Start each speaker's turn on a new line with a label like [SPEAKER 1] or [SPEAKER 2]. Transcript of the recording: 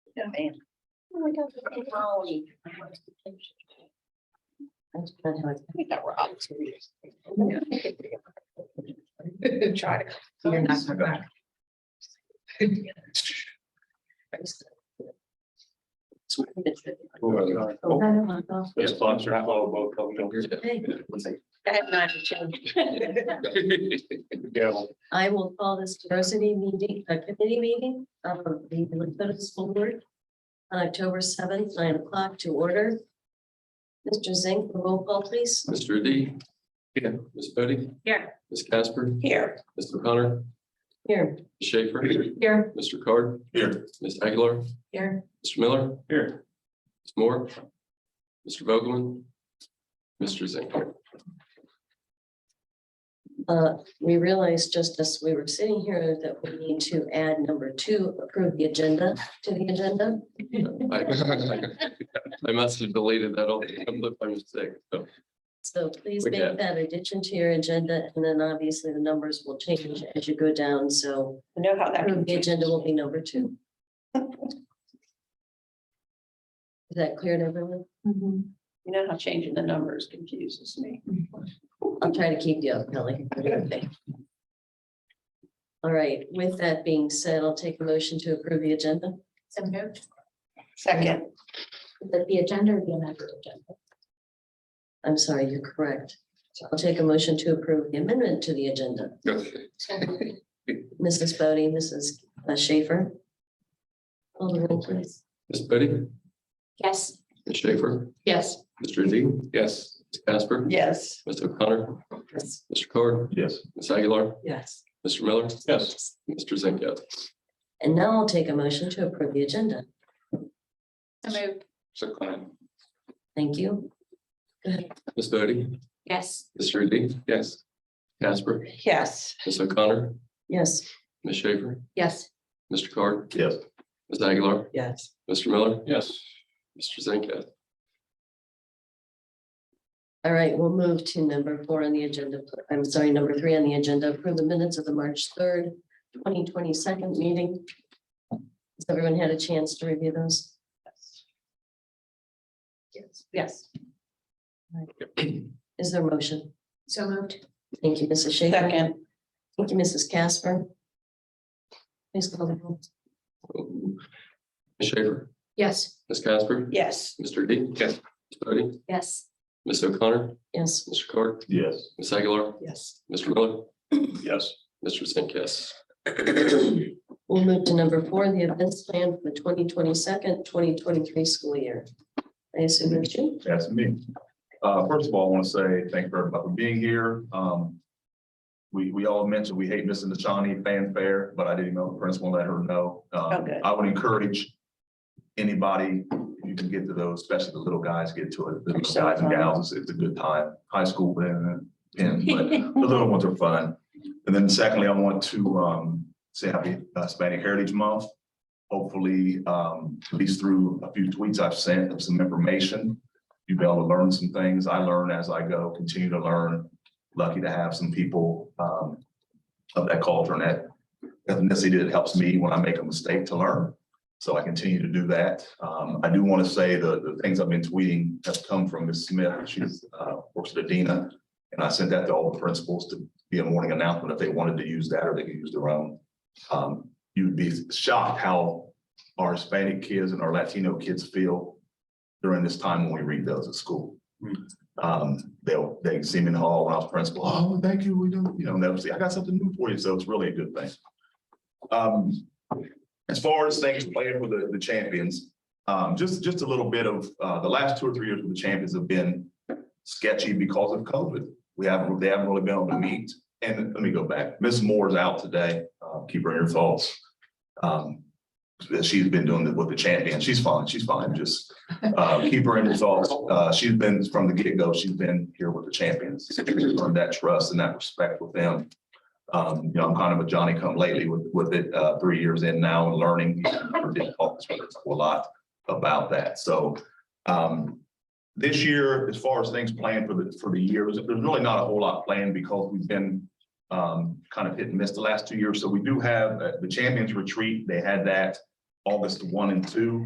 [SPEAKER 1] think that we're up to it.
[SPEAKER 2] Try to.
[SPEAKER 1] You're not coming back.
[SPEAKER 3] Oh, Those
[SPEAKER 4] Yes,
[SPEAKER 3] clocks are all both coming over.
[SPEAKER 1] I have not changed.
[SPEAKER 3] Gavel.
[SPEAKER 1] I will call this diversity meeting, a committee meeting um, of the Lakota School Board on October seventh, nine o'clock to order. Mr. Zink, roll call please.
[SPEAKER 4] Mr. D. Yeah. Ms. Bodie.
[SPEAKER 1] Yeah.
[SPEAKER 4] Ms. Casper.
[SPEAKER 1] Here.
[SPEAKER 4] Mr. O'Connor.
[SPEAKER 1] Here.
[SPEAKER 4] Ms. Schaefer.
[SPEAKER 1] Here.
[SPEAKER 4] Mr. Card. Here. Ms. Aguilar.
[SPEAKER 1] Here.
[SPEAKER 4] Mr. Miller.
[SPEAKER 3] Here.
[SPEAKER 4] Ms. Moore. Mr. Vogelman. Mr. Zink.
[SPEAKER 1] Uh, we realized just as we were sitting here that we need to add number two, approve the agenda to the agenda.
[SPEAKER 4] I I must have deleted that all by mistake. So
[SPEAKER 1] So please
[SPEAKER 4] We
[SPEAKER 1] make
[SPEAKER 4] did.
[SPEAKER 1] that addition to your agenda and then obviously the numbers will change as you go down, so. Know how that. The agenda will be number two. Is that clear to everyone?
[SPEAKER 5] Mm-hmm.
[SPEAKER 2] You know how changing the numbers confuses me.
[SPEAKER 1] I'll try to keep you up, Kelly. All right, with that being said, I'll take a motion to approve the agenda.
[SPEAKER 5] So moved,
[SPEAKER 2] Second,
[SPEAKER 5] that the agenda or the amended agenda?
[SPEAKER 1] I'm sorry, you're correct. I'll take a motion to approve the amendment to the agenda. Mrs. Bodie, Mrs. Schaefer. Call the roll, please.
[SPEAKER 4] Ms. Bodie.
[SPEAKER 5] Yes.
[SPEAKER 4] Ms. Schaefer.
[SPEAKER 5] Yes.
[SPEAKER 4] Mr. D. Yes. Ms. Casper.
[SPEAKER 2] yes.
[SPEAKER 4] Mr. O'Connor.
[SPEAKER 1] Yes.
[SPEAKER 4] Mr. Card.
[SPEAKER 3] Yes.
[SPEAKER 4] Ms. Aguilar.
[SPEAKER 1] Yes.
[SPEAKER 4] Mr. Miller.
[SPEAKER 3] Yes.
[SPEAKER 4] Mr. Zink, yes.
[SPEAKER 1] And now I'll take a motion to approve the agenda.
[SPEAKER 5] So moved,
[SPEAKER 3] So Klein.
[SPEAKER 1] Thank you.
[SPEAKER 4] Ms. Bodie.
[SPEAKER 5] yes.
[SPEAKER 4] Mr. D. Yes. Casper.
[SPEAKER 2] Yes.
[SPEAKER 4] Ms. O'Connor.
[SPEAKER 1] Yes.
[SPEAKER 4] Ms. Schaefer.
[SPEAKER 5] Yes.
[SPEAKER 4] Mr. Card.
[SPEAKER 3] Yes.
[SPEAKER 4] Ms. Aguilar.
[SPEAKER 2] Yes.
[SPEAKER 4] Mr. Miller.
[SPEAKER 3] Yes.
[SPEAKER 4] Mr. Zink, yes.
[SPEAKER 1] All right, we'll move to number four on the agenda. I'm sorry, number three on the agenda, approve the minutes of the March third, twenty twenty second meeting. Has everyone had a chance to review those?
[SPEAKER 5] Yes. Yes.
[SPEAKER 1] Is there a motion?
[SPEAKER 5] So moved,
[SPEAKER 1] Thank you, Mrs. Schaefer.
[SPEAKER 2] Second,
[SPEAKER 1] Thank you, Mrs. Casper. Please call the roll.
[SPEAKER 4] Ms. Oh. Schaefer.
[SPEAKER 5] yes.
[SPEAKER 4] Ms. Casper.
[SPEAKER 2] yes.
[SPEAKER 4] Mr. D. Yes. Ms. Bodie.
[SPEAKER 5] Yes.
[SPEAKER 4] Ms. O'Connor.
[SPEAKER 1] Yes,
[SPEAKER 4] Mr. Card.
[SPEAKER 3] Yes.
[SPEAKER 4] Ms. Aguilar.
[SPEAKER 2] Yes.
[SPEAKER 4] Mr. Miller.
[SPEAKER 3] Yes.
[SPEAKER 4] Mr. Zink, yes.
[SPEAKER 1] we'll move to number four, the events plan for the twenty twenty second, twenty twenty three school year. I assume it's you.
[SPEAKER 6] That's me. Uh, first of all, I want to say thank you for everybody for being here. Um, we, we all mentioned we hate missing the Shawnee fanfare, but I didn't know the principal let her know. Um,
[SPEAKER 2] good.
[SPEAKER 6] I would encourage anybody, if you can get to those, especially the little guys, get to it. The
[SPEAKER 2] They're
[SPEAKER 6] little
[SPEAKER 2] so
[SPEAKER 6] guys and
[SPEAKER 2] fun.
[SPEAKER 6] gals, it's a good time. High school, then, then, but the little ones are fun. And then secondly, I want to, um, say happy Hispanic Heritage Month. Hopefully, um, at least through a few tweets I've sent of some information, you'll be able to learn some things. I learn as I go, continue to learn. Lucky to have some people, um, of that culture and that ethnicity that helps me when I make a mistake to learn. So I continue to do that. Um, I do want to say the, the things I've been tweeting have come from Ms. Smith. She's, uh, works at Adina. And I sent that to all the principals to be a morning announcement if they wanted to use that or they could use their own. Um, you'd be shocked how our Hispanic kids and our Latino kids feel during this time when we read those at school. Um, they'll, they see me in the hall when I was principal, oh, thank you, we do, you know, and they'll say, I got something new for you, so it's really a good thing. Um, as far as things playing for the, the champions, um, just, just a little bit of, uh, the last two or three years with the champions have been sketchy because of COVID. We haven't, they haven't really been able to meet. And let me go back. Ms. Moore's out today. Uh, Keep her in your thoughts. Um, She's been doing it with the champion. She's fine. She's fine. Just uh, keep her in your thoughts. Uh, She's been from the get-go. She's been here with the champions. Earned that trust and that respect with them. Um, You know, I'm kind of a Johnny come lately with, with it, uh, three years in now and learning. We did talk A lot about that. So um, this year, as far as things planned for the, for the year, there's there's really not a whole lot planned because we've been um, kind of hit and miss the last two years. So we do have uh, the Champions Retreat. They had that August one and two.